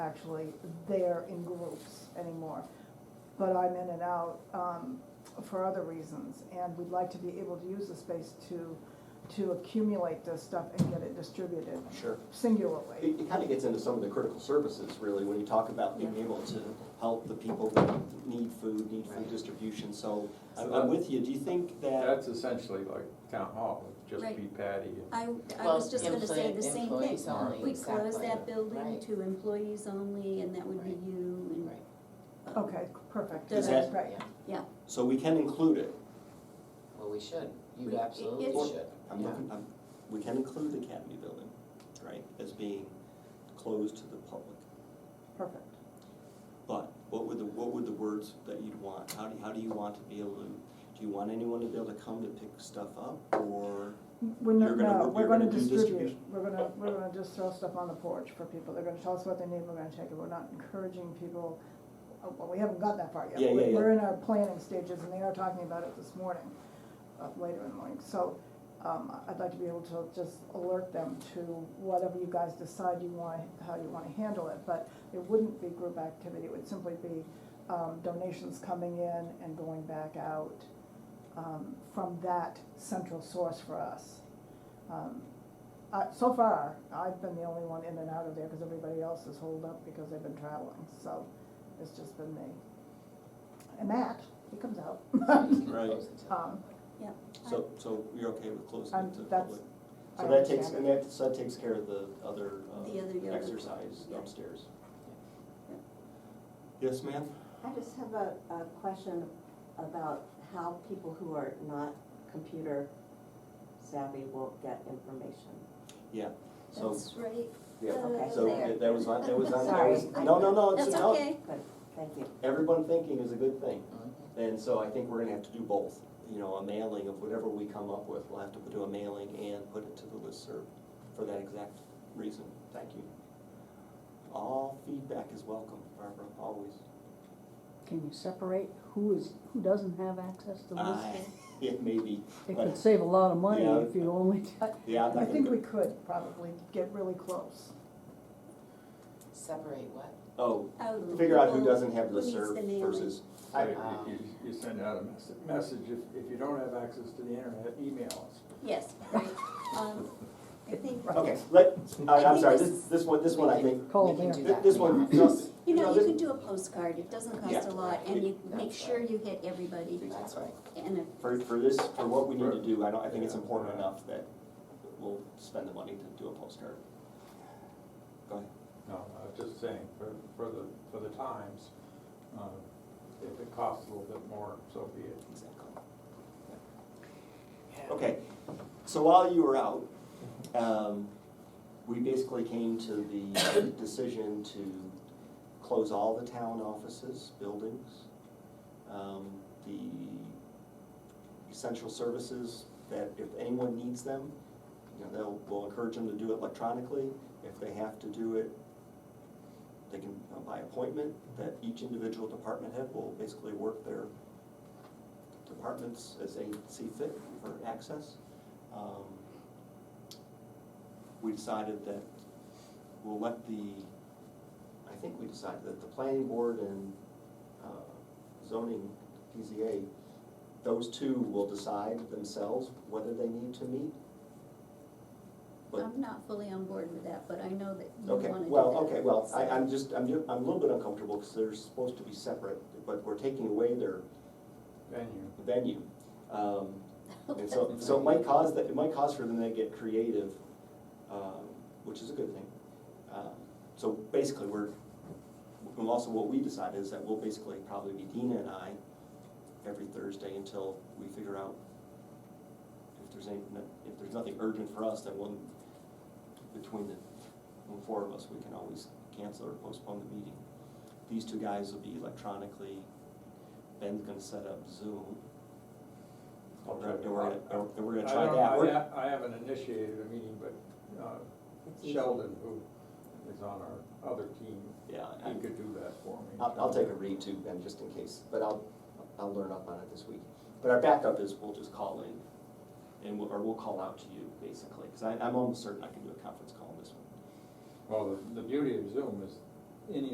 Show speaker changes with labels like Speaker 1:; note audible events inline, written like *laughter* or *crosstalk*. Speaker 1: actually there in groups anymore. But I'm in and out um, for other reasons, and we'd like to be able to use the space to, to accumulate this stuff and get it distributed
Speaker 2: Sure.
Speaker 1: singularly.
Speaker 2: It, it kind of gets into some of the critical services, really, when you talk about being able to help the people that need food, need food
Speaker 3: Right.
Speaker 2: distribution, so I'm,
Speaker 4: So
Speaker 2: I'm
Speaker 4: that-
Speaker 2: with you, do you think that,
Speaker 4: That's essentially like town hall, it'd just
Speaker 5: Right.
Speaker 4: be patty and.
Speaker 5: I, I was just gonna say the
Speaker 3: Employee-
Speaker 5: same
Speaker 3: employees
Speaker 5: thing.
Speaker 3: only,
Speaker 5: We close
Speaker 3: exactly.
Speaker 5: that building
Speaker 3: Right,
Speaker 5: to employees only, and that would be
Speaker 3: Right.
Speaker 5: you
Speaker 3: right,
Speaker 5: and. um,
Speaker 1: Okay, perfect.
Speaker 5: Does
Speaker 2: that-
Speaker 1: Right,
Speaker 3: yeah.
Speaker 5: Yeah,
Speaker 2: so we can include it?
Speaker 3: Well, we should,
Speaker 5: We-
Speaker 3: you
Speaker 5: it-
Speaker 3: absolutely
Speaker 5: it's-
Speaker 3: should.
Speaker 2: I'm
Speaker 3: Yeah. *laughs*
Speaker 2: looking, I'm, we can include the Academy Building, right, as being closed to the public.
Speaker 1: perfect.
Speaker 2: But what would the, what would the words that you'd want, how do, how do you want to be able to, do you want anyone to be able to come to pick stuff up, or?
Speaker 1: We're
Speaker 2: You're
Speaker 1: not,
Speaker 2: gonna-
Speaker 1: no,
Speaker 2: you're
Speaker 1: we're gonna
Speaker 2: gonna do
Speaker 1: distribute,
Speaker 2: distribution.
Speaker 1: we're gonna, we're gonna just throw stuff on the porch for people, they're gonna tell us what they need, we're gonna take it, we're not encouraging people. uh, Well, we haven't gotten that far yet.
Speaker 2: Yeah, yeah,
Speaker 1: We're-
Speaker 2: yeah.
Speaker 1: We're in our planning stages, and they are talking about it this morning, uh, later in the morning, so, um, I'd like to be able to just alert them to whatever you guys decide you want, how you wanna handle it, but it wouldn't be group activity, it would simply be, um, donations coming in and going back out, um, from that central source for us. Um, I so far, I've been the only one in and out of there, cause everybody else is holed up because they've been traveling, so it's just been me. And Matt, he comes out. *laughs*
Speaker 3: You can
Speaker 2: Right.
Speaker 3: close it to-
Speaker 1: Um,
Speaker 2: So, so you're okay with closing
Speaker 1: I'm-
Speaker 2: it to the
Speaker 1: that's-
Speaker 2: public?
Speaker 1: I
Speaker 2: So that takes,
Speaker 1: understand.
Speaker 2: and that, so that takes care of the other, uh,
Speaker 5: The other yoga.
Speaker 2: exercise
Speaker 5: Yeah.
Speaker 2: upstairs.
Speaker 5: Yeah.
Speaker 2: Yes, ma'am?
Speaker 6: I just have a, a question about how people who are not computer savvy will get information.
Speaker 2: Yeah, so,
Speaker 5: that's right.
Speaker 2: yeah,
Speaker 5: uh,
Speaker 2: so
Speaker 5: there.
Speaker 2: that- that was on, that was on, that
Speaker 6: Sorry.
Speaker 2: was, no, no, no, it's,
Speaker 5: That's
Speaker 2: no,
Speaker 5: okay.
Speaker 6: Good, thank you.
Speaker 2: everyone thinking is a good thing.
Speaker 3: Mhm.
Speaker 2: And so I think we're gonna have to do both, you know, a mailing of whatever we come up with, we'll have to do a mailing and put it to the listserv for that exact reason, thank you. All feedback is welcome, Barbara, always.
Speaker 7: Can you separate who is, who doesn't have access to this?
Speaker 2: I- *laughs* It may be,
Speaker 7: It
Speaker 2: but-
Speaker 7: could save a lot of money
Speaker 2: Yeah.
Speaker 7: if you only,
Speaker 2: yeah, I'm
Speaker 1: I
Speaker 2: not gonna
Speaker 1: think
Speaker 2: go-
Speaker 1: we could probably get really close.
Speaker 3: Separate what?
Speaker 2: oh,
Speaker 5: Out of the
Speaker 2: figure out who
Speaker 5: people
Speaker 2: doesn't have
Speaker 5: who
Speaker 2: the
Speaker 5: needs
Speaker 2: serve
Speaker 5: the mailing.
Speaker 2: versus,
Speaker 4: So
Speaker 2: I, um,
Speaker 4: you- you, you send out a mess- message, if, if you don't have access to the internet, email us.
Speaker 5: Yes, right, um, I think,
Speaker 2: *laughs* okay, let, I, I'm sorry, this, this one, this one I
Speaker 3: We can-
Speaker 2: think,
Speaker 7: Call
Speaker 3: we can
Speaker 7: there.
Speaker 3: do
Speaker 2: thi-
Speaker 3: that
Speaker 2: this
Speaker 3: now.
Speaker 2: one, no,
Speaker 5: you know,
Speaker 2: no,
Speaker 5: you
Speaker 2: this-
Speaker 5: can do a postcard, it doesn't cost
Speaker 2: Yeah.
Speaker 5: a lot, and you
Speaker 3: That's
Speaker 5: make sure
Speaker 3: right.
Speaker 5: you hit everybody,
Speaker 3: That's right.
Speaker 5: and if,
Speaker 2: for, for this, for what we need to do, I don't, I think it's
Speaker 4: Yeah.
Speaker 2: important enough that we'll spend the money to do a postcard. Go ahead.
Speaker 4: No, I was just saying, for, for the, for the times, uh, if it costs a little bit more, so be it.
Speaker 2: Exactly. Okay, so while you were out, um, we basically came to the decision to close all the town offices, buildings, um, the essential services, that if anyone needs them, you know, they'll, we'll encourage them to do it electronically. If they have to do it, they can, uh, by appointment, that each individual department head will basically work their departments as they see fit for access. Um, We decided that we'll let the, I think we decided that the planning board and uh, zoning, PZA, those two will decide themselves whether they need to meet. But-
Speaker 5: I'm not fully on board with that, but I know that you wanna
Speaker 2: Okay,
Speaker 5: do that.
Speaker 2: well, okay, well, I,
Speaker 5: so-
Speaker 2: I'm just, I'm, ju- I'm a little bit uncomfortable because they're supposed to be separate, but we're taking away their
Speaker 4: Venue,
Speaker 2: venue. Um, And
Speaker 5: *laughs*
Speaker 2: so, so it might cause that, it might cause for them to get creative, um, which is a good thing. Um, So basically, we're, and also what we decided is that we'll basically probably be Dina and I every Thursday until we figure out if there's any, if there's nothing urgent for us, then one, between the, the four of us, we can always cancel or postpone the meeting. These two guys will be electronically, Ben's gonna set up Zoom.
Speaker 4: I'll try to-
Speaker 2: And we're gonna, and we're gonna
Speaker 4: I
Speaker 2: try
Speaker 4: don't-
Speaker 2: that.
Speaker 4: I
Speaker 2: We're-
Speaker 4: ha- I haven't initiated a meeting, but uh,
Speaker 6: It's easy.
Speaker 4: Sheldon, who is on our other team,
Speaker 2: Yeah,
Speaker 4: he
Speaker 2: I-
Speaker 4: could do that for me.
Speaker 2: Uh, I'll, I'll take a read too, Ben, just in case, but I'll, I'll learn up on it this week. But our backup is we'll just call in and we'll, or we'll call out to you basically, because I, I'm almost certain I can do a conference call on this one.
Speaker 4: Well, the, the beauty of Zoom is any